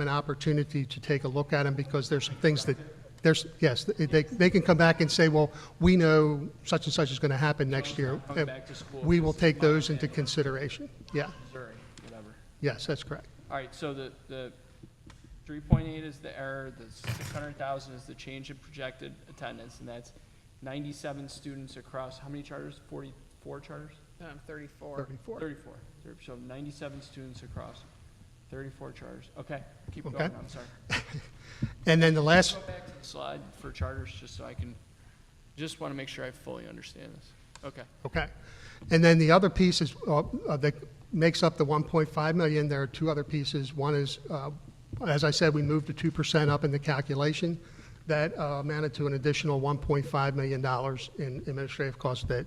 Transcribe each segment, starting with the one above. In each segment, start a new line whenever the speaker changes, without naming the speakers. an opportunity to take a look at them because there's some things that, there's, yes, they, they can come back and say, well, we know such and such is going to happen next year. Uh,
Coming back to school
We will
because
take
of Mother's
those into
Day.
consideration. Yeah,
Missouri, whatever.
yes, that's correct.
All right, so the, the three point eight is the error, the six hundred thousand is the change in projected attendance, and that's ninety-seven students across, how many charters? Forty-four charters?
Um, thirty-four.
34.
Thirty-four. Thir- So ninety-seven students across thirty-four charters. Okay, keep
Okay.
going, I'm sorry.
And then the last,
Go back to the slide for charters, just so I can, just want to make sure I fully understand this. Okay.
Okay. And then the other piece is, uh, uh, that makes up the 1.5 million, there are two other pieces. One is, uh, as I said, we moved to 2% up in the calculation. That uh, amounted to an additional $1.5 million dollars in administrative costs that,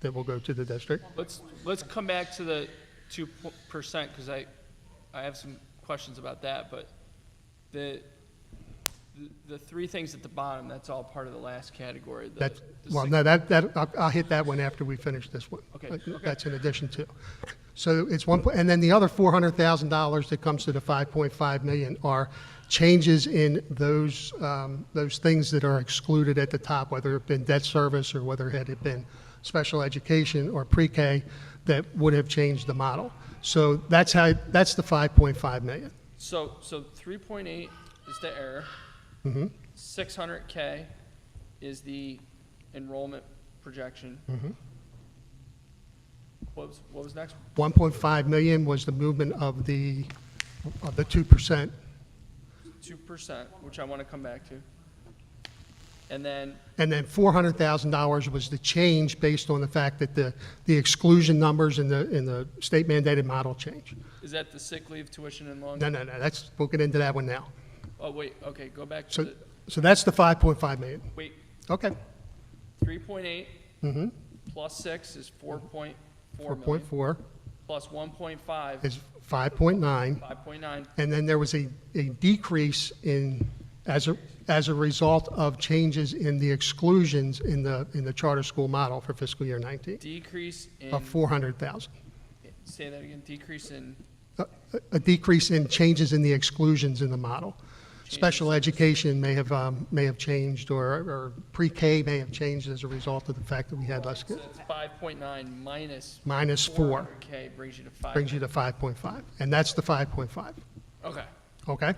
that will go to the district.
Let's, let's come back to the two percent, because I, I have some questions about that, but the, the- the three things at the bottom, that's all part of the last category. the-
That's,
the
well,
six-
no, that, that, I'll- I'll hit that one after we finish this one.
Okay,
But
okay.
That's in addition to. So it's one, po- and then the other four hundred thousand dollars that comes to the five point five million are changes in those, um, those things that are excluded at the top, whether it been debt service or whether it had been special education or pre-K that would have changed the model. So that's how, that's the five point five million.
So, so three point eight is the error.
Mm-hmm.
Six hundred K is the enrollment projection.
Mm-hmm.
What was, what was next?
One point five million was the movement of the, of the two percent
Two percent, which I want to come back to. And then
And then $400,000 was the change based on the fact that the, the exclusion numbers in the, in the state mandated model change.
Is that the sick leave, tuition, and loan?
No, no, no, that's, we'll get into that one now.
Oh, wait, okay, go back to
So,
the,
so that's the 5.5 million.
wait,
Okay,
three point eight
Mm-hmm.
plus six is four point four million.
4.4
Plus one point five,
is 5.9.
five point nine,
And then there was a, a decrease in, as a, as a result of changes in the exclusions in the, in the charter school model for fiscal year 19
decrease in,
of 400,000.
say that again, decrease in,
a- a decrease in changes in the exclusions in the model. Special education may have, um, may have changed, or, or pre-K may have changed as a result of the fact that we had less,
so that's five point nine minus
minus four,
K brings you to five.
brings you to 5.5, and that's the 5.5,
Okay,
okay?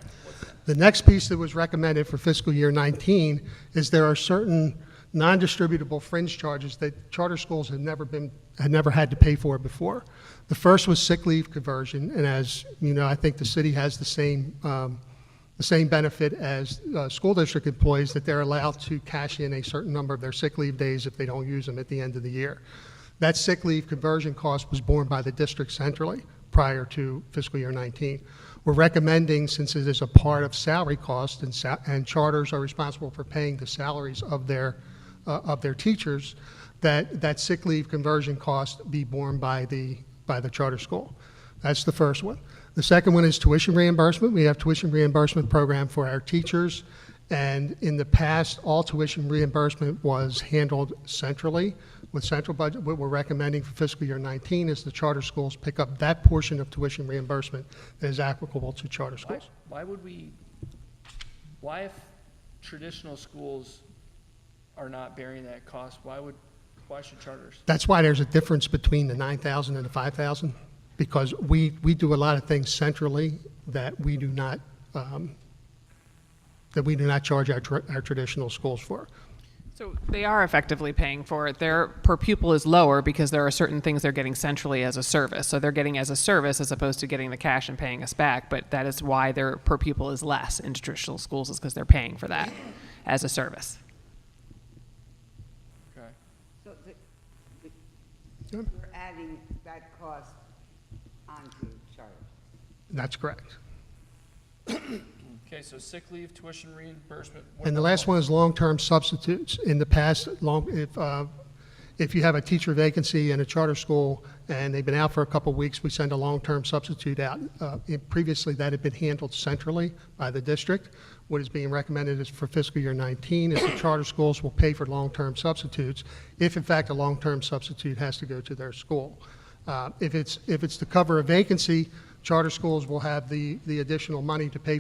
The next piece that was recommended for fiscal year 19 is there are certain non-distributable fringe charges that charter schools have never been, had never had to pay for before. The first was sick leave conversion, and as you know, I think the city has the same um, the same benefit as uh, school district employees that they're allowed to cash in a certain number of their sick leave days if they don't use them at the end of the year. That sick leave conversion cost was borne by the district centrally prior to fiscal year 19. We're recommending, since it is a part of salary cost and, sa- and charters are responsible for paying the salaries of their, uh, of their teachers, that, that sick leave conversion cost be borne by the, by the charter school. That's the first one. The second one is tuition reimbursement. We have tuition reimbursement program for our teachers. And in the past, all tuition reimbursement was handled centrally with central budget. What we're recommending for fiscal year 19 is the charter schools pick up that portion of tuition reimbursement that is applicable to charter
why,
schools.
why would we, why if traditional schools are not bearing that cost, why would, why should charters?
That's why there's a difference between the 9,000 and the 5,000, because we, we do a lot of things centrally that we do not, um, that we do not charge our, tr- our traditional schools for.
So they are effectively paying for it. Their per pupil is lower because there are certain things they're getting centrally as a service. So they're getting as a service as opposed to getting the cash and paying us back. But that is why their per pupil is less in traditional schools is because they're paying for that as a service.
Okay.
So the,
Yeah.
the, you're adding that cost onto charter.
That's correct.
Okay, so sick leave, tuition reimbursement. what
And the
about
last one is long-term substitutes. In the past, long, if, uh, if you have a teacher vacancy in a charter school and they've been out for a couple of weeks, we send a long-term substitute out. Uh, it- Previously, that had been handled centrally by the district. What is being recommended is for fiscal year 19, is the charter schools will pay for long-term substitutes if, in fact, a long-term substitute has to go to their school. Uh, If it's, if it's to cover a vacancy, charter schools will have the, the additional money to pay